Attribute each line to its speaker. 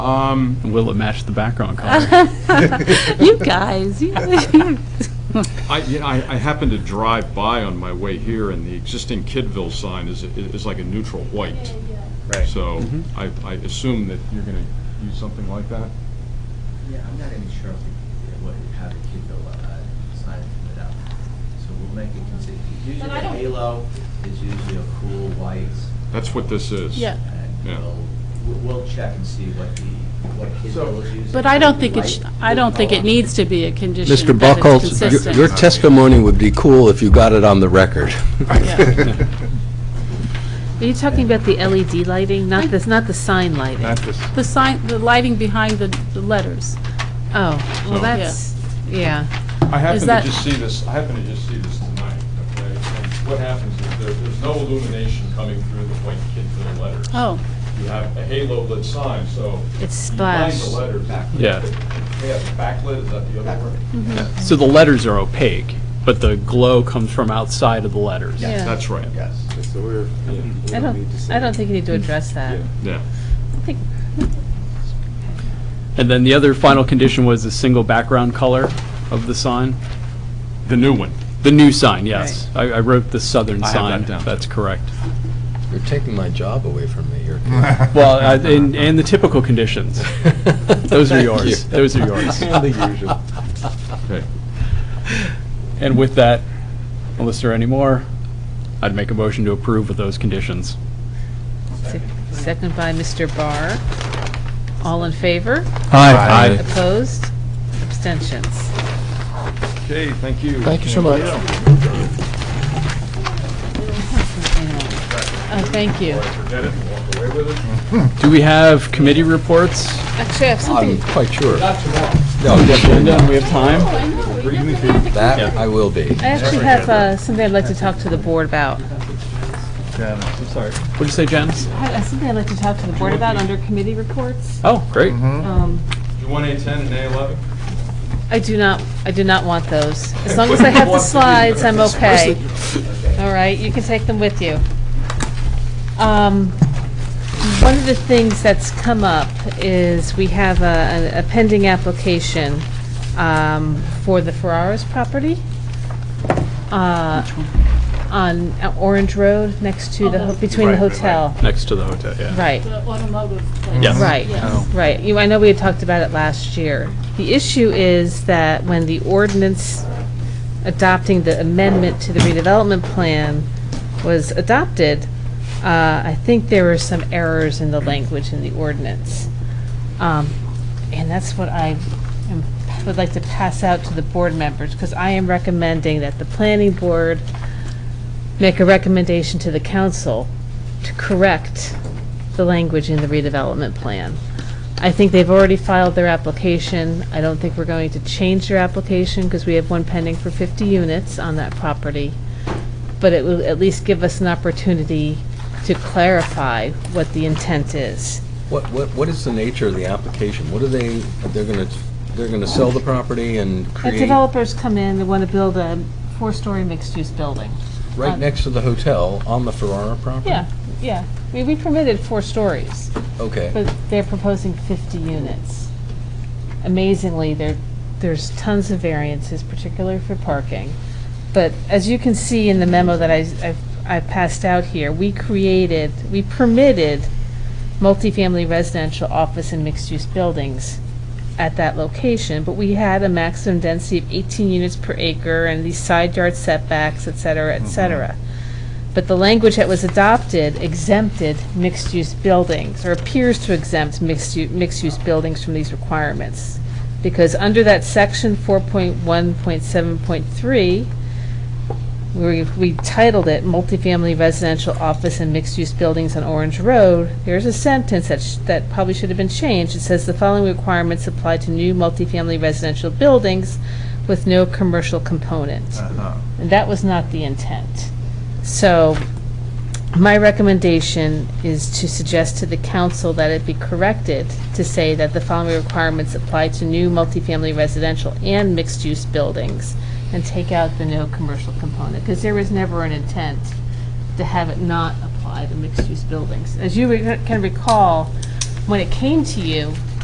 Speaker 1: Um,
Speaker 2: Will it match the background color?
Speaker 3: Oh. You guys, you-
Speaker 1: I, you know, I I happened to drive by on my way here, and the existing Kidville sign is, is like a neutral white.
Speaker 4: Right.
Speaker 1: So I, I assume that you're going to use something like that?
Speaker 5: Yeah, I'm not even sure if we would have a kid go, uh, sign it up. So we'll make it consistent. Usually the halo is usually a cool white.
Speaker 1: That's what this is.
Speaker 3: Yeah.
Speaker 5: And
Speaker 1: Yeah.
Speaker 5: we'll, we'll we'll check and see what the, what kid
Speaker 1: So-
Speaker 5: will use.
Speaker 3: But I don't think it, sh- I don't think it needs to be a condition
Speaker 6: Mr.
Speaker 3: that it's
Speaker 6: Buckholz,
Speaker 3: consistent.
Speaker 6: your- your testimony would be cool if you got it on the record.
Speaker 3: Are you talking about the LED lighting, not this, not the sign lighting?
Speaker 4: Not this,
Speaker 3: The sign, the lighting behind the, the letters. Oh,
Speaker 1: So-
Speaker 3: well, that's, yeah.
Speaker 1: I happened to
Speaker 3: that-
Speaker 1: just see this, I happened to just see this tonight, okay? And what happens is there, there's no illumination coming through the white Kidville letters.
Speaker 3: Oh,
Speaker 1: You have a halo lit sign, so.
Speaker 3: It's
Speaker 1: behind
Speaker 3: splashed.
Speaker 1: the letters.
Speaker 2: Yeah.
Speaker 1: They have backlit, is that the other word?
Speaker 3: Mm-hmm.
Speaker 2: So the letters are opaque, but the glow comes from outside of the letters.
Speaker 3: yeah.
Speaker 1: That's right.
Speaker 4: yes, that's the word.
Speaker 3: I don't, I don't think you need to address that.
Speaker 1: Yeah.
Speaker 3: I think,
Speaker 2: And then the other final condition was the single background color of the sign?
Speaker 1: The new one.
Speaker 2: The new sign, yes. I, I wrote the southern
Speaker 1: I have
Speaker 2: sign.
Speaker 1: that down.
Speaker 2: That's correct.
Speaker 6: You're taking my job away from me. You're-
Speaker 2: Well, I- and, and the typical conditions. Those are
Speaker 6: Thank
Speaker 2: yours.
Speaker 6: you.
Speaker 2: Those are yours.
Speaker 6: And the usual.
Speaker 1: Okay.
Speaker 2: And with that, unless there are any more, I'd make a motion to approve with those conditions.
Speaker 3: se- Second by Mr. Barr. All in favor?
Speaker 6: Hi.
Speaker 3: Opposed? Abstentions?
Speaker 1: Okay, thank you.
Speaker 6: Thank you so much.
Speaker 3: Oh, thank you.
Speaker 1: Forget it, walk away with it.
Speaker 2: Do we have committee reports?
Speaker 3: Actually, I have
Speaker 6: I'm
Speaker 3: Uh, something.
Speaker 6: quite sure. No, definitely
Speaker 2: Linda,
Speaker 6: not.
Speaker 2: we have time?
Speaker 6: That I will be.
Speaker 3: I actually have uh, something I'd like to talk to the board about.
Speaker 2: What'd you say, Janice?
Speaker 3: I have Uh, Something I'd like to talk to the board about under committee reports.
Speaker 2: Oh, great.
Speaker 3: Um,
Speaker 1: You want A10 and A11?
Speaker 3: I do not, I do not want those. As long as I have the slides, I'm okay. All right, you can take them with you. Um, One of the things that's come up is we have a a pending application um, for the Ferraris property uh, on Orange Road next to the, between the hotel.
Speaker 2: Next to the hotel, yeah.
Speaker 3: Right.
Speaker 7: The automotive place.
Speaker 2: Yes.
Speaker 3: Right, right. You, I know we had talked about it last year. The issue is that when the ordinance adopting the amendment to the redevelopment plan was adopted, uh, I think there were some errors in the language in the ordinance. Um, And that's what I am- would like to pass out to the board members, because I am recommending that the planning board make a recommendation to the council to correct the language in the redevelopment plan. I think they've already filed their application. I don't think we're going to change their application because we have one pending for 50 units on that property. But it will at least give us an opportunity to clarify what the intent is.
Speaker 6: What, what, what is the nature of the application? What are they, they're gonna, they're gonna sell the property and
Speaker 3: The
Speaker 6: create
Speaker 3: developers come in, they want to build a four-story mixed-use building.
Speaker 6: right next to the hotel on the Ferrara property?
Speaker 3: Yeah, yeah. I mean, we permitted four stories.
Speaker 6: Okay.
Speaker 3: But they're proposing 50 units. Amazingly, there, there's tons of variances, particularly for parking. But as you can see in the memo that I, I've- I passed out here, we created, we permitted multifamily residential office and mixed-use buildings at that location, but we had a maximum density of 18 units per acre and these side yard setbacks, et cetera, et cetera. But the language that was adopted exempted mixed-use buildings, or appears to exempt mixed-use, mixed-use buildings from these requirements. Because under that section 4.1.7.3, we, we titled it multifamily residential office and mixed-use buildings on Orange Road, there's a sentence that, sh- that probably should have been changed. It says the following requirements apply to new multifamily residential buildings with no commercial component. And that was not the intent. So my recommendation is to suggest to the council that it be corrected to say that the following requirements apply to new multifamily residential and mixed-use buildings, and take out the no commercial component, because there was never an intent to have it not apply to mixed-use buildings. As you re- can recall, when it came to you,